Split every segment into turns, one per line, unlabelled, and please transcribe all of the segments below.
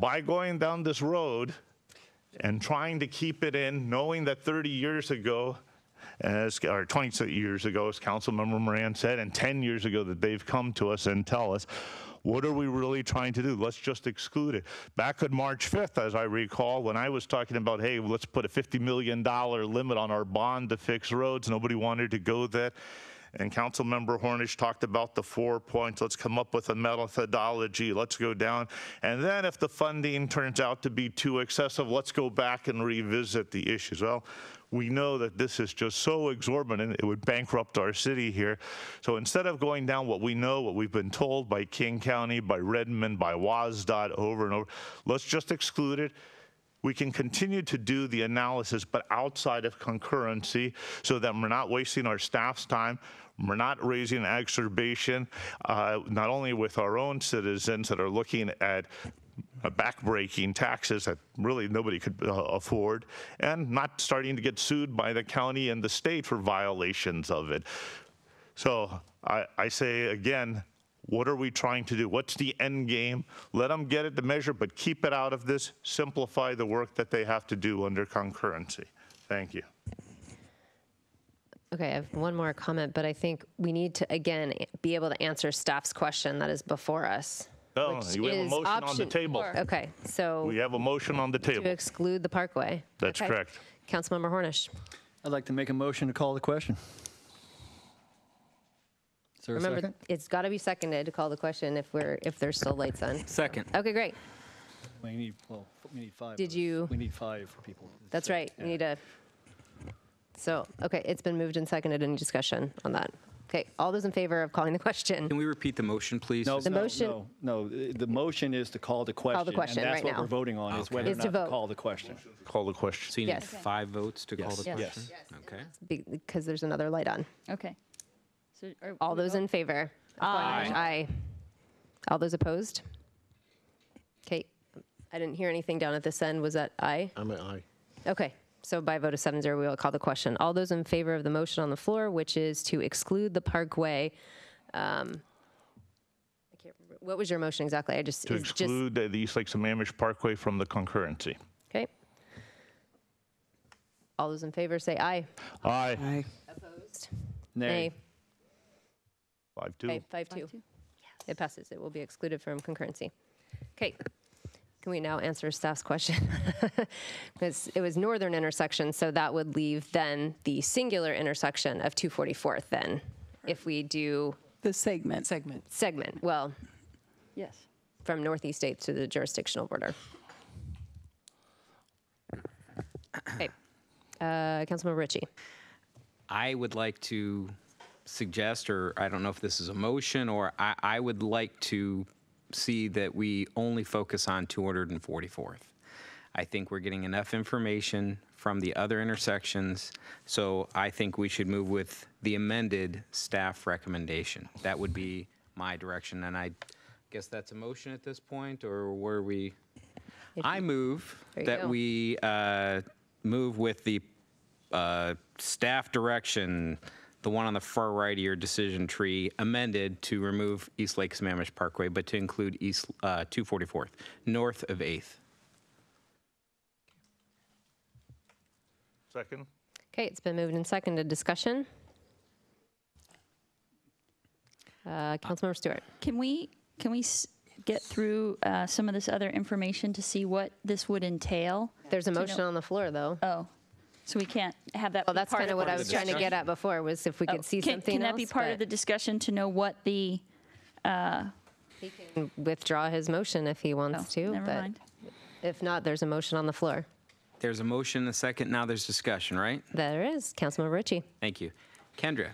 by going down this road and trying to keep it in, knowing that 30 years ago, as, or 20 years ago, as Councilmember Moran said, and 10 years ago that they've come to us and tell us, what are we really trying to do? Let's just exclude it. Back on March 5th, as I recall, when I was talking about, hey, let's put a $50 million limit on our bond to fix roads, nobody wanted to go that. And Councilmember Hornish talked about the four points. Let's come up with a methodology. Let's go down. And then if the funding turns out to be too excessive, let's go back and revisit the issues. Well, we know that this is just so exorbitant, it would bankrupt our city here. So instead of going down what we know, what we've been told by King County, by Redmond, by WASDOT over and over, let's just exclude it. We can continue to do the analysis, but outside of concurrency, so that we're not wasting our staff's time. We're not raising exacerbation, uh, not only with our own citizens that are looking at uh, backbreaking taxes that really nobody could uh, afford, and not starting to get sued by the county and the state for violations of it. So I, I say again, what are we trying to do? What's the end game? Let them get it to measure, but keep it out of this. Simplify the work that they have to do under concurrency. Thank you.
Okay, I have one more comment, but I think we need to, again, be able to answer staff's question that is before us.
No,
which
we Oh, have a
is
motion on the
option-
table.
Okay, so
We have a motion on the
to
table.
exclude the Parkway.
That's
Okay.
correct.
Councilmember Hornish.
I'd like to make a motion to call the question. Is there a
Remember,
second?
it's got to be seconded to call the question if we're, if there's still lights on.
Second.
Okay, great.
We need, well, we need five.
Did
of us.
you-
We need five people.
That's right. We need a, so, okay, it's been moved and seconded. Any discussion on that? Okay, all those in favor of calling the question?
Can we repeat the motion, please?
No,
The
no,
motion-
no, no, the the motion is to call the question.
question
And
right
that's what
now.
we're voting on, is
Okay.
whether or
Is to
not to
vote.
call the question.
Call the question.
So you need
Yes. Okay.
five votes to call the
Yes.
question?
Yes.
Okay.
Be- Because there's another light on.
Okay. So are
All
we
those
vote-
in favor? Aye. Aye. All those opposed? Okay, I didn't hear anything down at this end. Was that aye?
I'm an aye.
Okay, so by a vote of seven zero, we will call the question. All those in favor of the motion on the floor, which is to exclude the Parkway, um, I can't remember, what was your motion exactly? I just,
To
it's just,
exclude the East Lake Sammamish Parkway from the concurrency.
okay. All those in favor say aye.
Aye.
Opposed?
Nay.
Five,
Okay,
two.
five two. It passes. It will be excluded from concurrency. Okay. Can we now answer staff's question? Because it was northern intersection, so that would leave then the singular intersection of 244th then, if we do
The segment. Segment.
segment, well,
Yes.
from northeast states to the jurisdictional border. Okay. Uh, Councilmember Ritchie.
I would like to suggest, or I don't know if this is a motion, or I, I would like to see that we only focus on 244th. I think we're getting enough information from the other intersections, so I think we should move with the amended staff recommendation. That would be my direction, and I guess that's a motion at this point, or were we? I move
There you
that
go.
we uh, move with the uh, staff direction, the one on the far right of your decision tree, amended to remove East Lake Sammamish Parkway, but to include East uh, 244th, north of 8th.
Second?
Okay, it's been moved and seconded. Discussion? Uh, Councilmember Stewart.
Can we, can we s- get through uh, some of this other information to see what this would entail?
There's a motion on the floor, though.
Oh, so we can't have that
Well,
be
that's
part
kind of what
the
I was trying to get at before, was if we
Oh,
could see
can-
something
Can that be
else,
part of the
but
discussion to know what the,
He can withdraw his motion if he
oh,
wants to,
never
but
mind.
if not, there's a motion on the floor.
There's a motion, and a second, now there's discussion, right?
There is, Councilmember Ritchie.
Thank you. Kendra,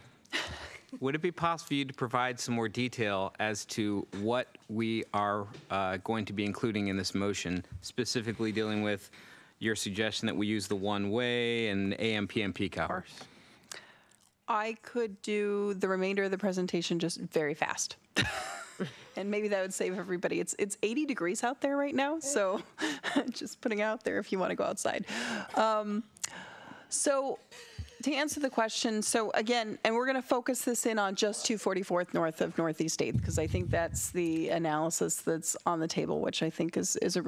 would it be possible for you to provide some more detail as to what we are uh, going to be including in this motion, specifically dealing with your suggestion that we use the one-way and AM, PM peak hours?
I could do the remainder of the presentation just very fast. and maybe that would save everybody. It's it's 80 degrees out there right now, so just putting it out there if you want to go outside. Um, so to answer the question, so again, and we're going to focus this in on just 244th north of Northeast 8th because I think that's the analysis that's on the table, which I think is is a